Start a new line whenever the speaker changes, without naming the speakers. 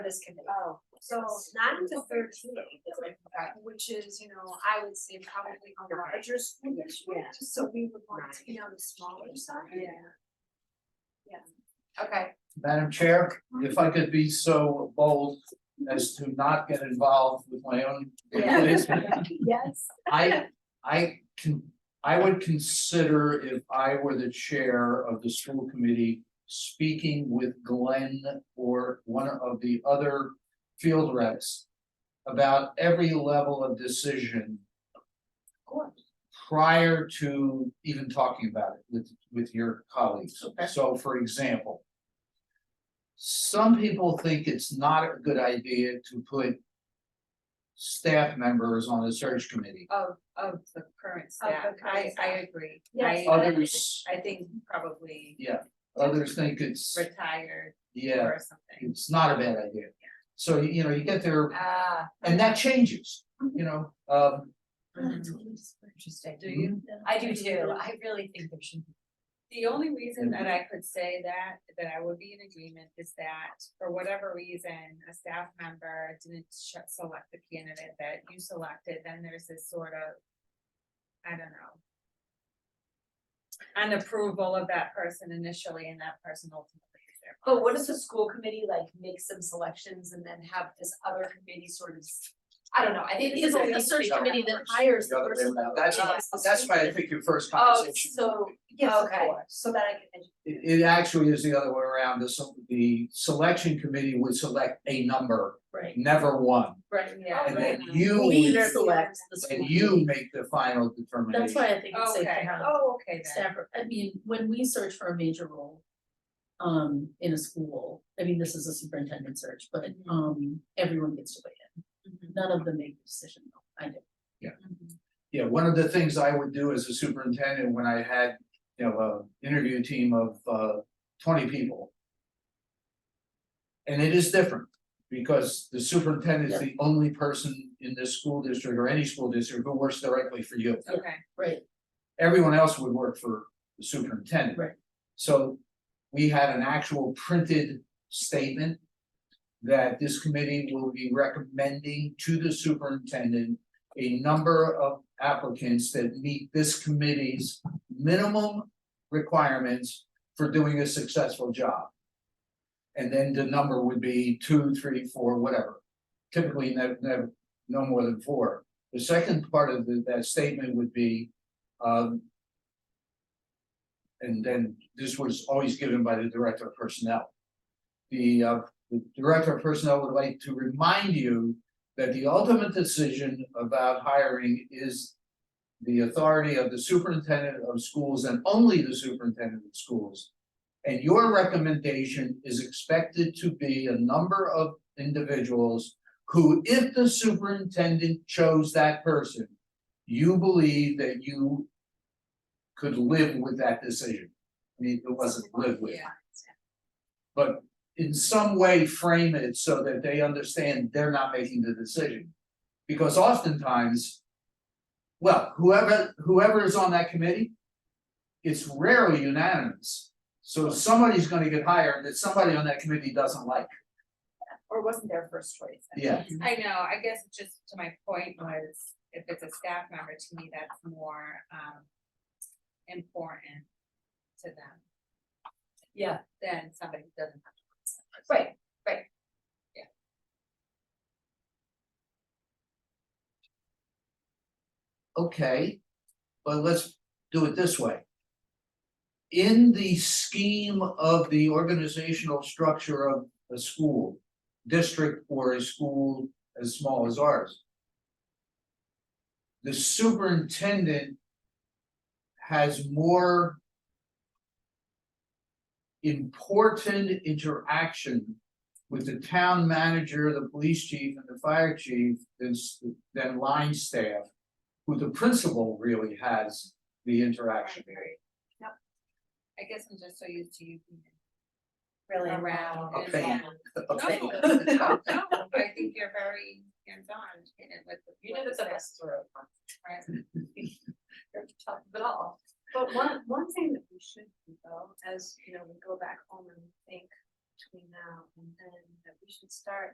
this committee.
Oh,
So nine to thirteen, which is, you know, I would say probably a larger school
Yeah.
district, so we would want to be on the smaller side.
yeah.
Okay.
Madam Chair, if I could be so bold as to not get involved with my own. activities,
Yes.
I, I can, I would consider if I were the chair of the school committee. Speaking with Glenn or one of the other field reps. About every level of decision. Prior to even talking about it with, with your colleagues. So for example. Some people think it's not a good idea to put. Staff members on the search committee.
Of, of the current staff,
current
I, I
staff.
agree.
Yes.
Oh,
I-
Others,
I think probably
others think it's,
retired
yeah,
or something.
it's not a bad idea. So, you you know, you get there,
Ah.
and that changes, you know, um,
Hmm.
Interesting, do you? I do too, I really think there should be. The only reason that
Mm-hmm.
I could say that, that I would be in agreement is that for whatever reason, a staff member didn't sh- select the candidate that you selected, then there's this sort of. I don't know. An approval of that person initially and that person ultimately is their.
But what if the school committee like makes some selections and then have this other committee sort of, I don't know, I think
It is
it's a
a
search
search
committee that hires
the
the
other way
person.
around. That's, that's why I think your first
Oh,
conversation.
so, yes, of
Okay.
course, so that I can.
It, it actually is the other way around, the, se- the selection committee would select a number,
Right.
never one,
Right,
Yeah.
and then
Right.
you.
We
would-
select the
And
school.
you make the final determination.
That's why I think it's safe to
Okay,
have
oh, okay then.
staff, I mean, when we search for a major role. Um, in a school, I mean, this is a superintendent search, but
Mm-hmm.
um, everyone gets to weigh
Mm-hmm.
in, none of them make the decision, though. I do.
Yeah, one of the things I would do as a superintendent when I had, you know, a interview team of uh twenty people. And it is different, because the superintendent is the only person in this school district or any school district who works directly for you.
Okay,
Right,
Everyone else would work for the superintendent.
Right.
So we had an actual printed statement that this committee will be recommending to the superintendent a number of applicants that meet this committee's minimum requirements for doing a successful job. And then the number would be two, three, four, whatever, typically never, never, no more than four. The second part of the- that statement would be, um. And then this was always given by the director of personnel. The uh, the director of personnel would like to remind you that the ultimate decision about hiring is the authority of the superintendent of schools and only the superintendent of schools. And your recommendation is expected to be a number of individuals who, if the superintendent chose that person, you believe that you could live with that decision. I mean, it wasn't live with
yeah,
but in some way frame it so that they understand they're not making the decision. Because oftentimes, well, whoever, whoever is on that committee, it's rarely unanimous. So somebody's gonna get hired that somebody on that committee doesn't like,
Or wasn't their first choice.
yeah,
I know, I guess just to my point was, if it's a staff member, to me, that's more, um, important to them
Yeah,
than somebody who doesn't have.
right,
okay, but let's do it this way. In the scheme of the organizational structure of a school, district or a school as small as ours. the superintendent has more important interaction with the town manager, the police chief, and the fire chief than, s- than line staff, who the principal really has the interaction.
I guess I'm just so used to you being
really
around. and
Okay.
on.
Okay.
No, no, no, I think you're very hands-on in it with. the-
You know
with
that the best
staff, Right,
top of it all. But one, one thing that we should do though, as, you know, we go back home and think between now and then, that we should start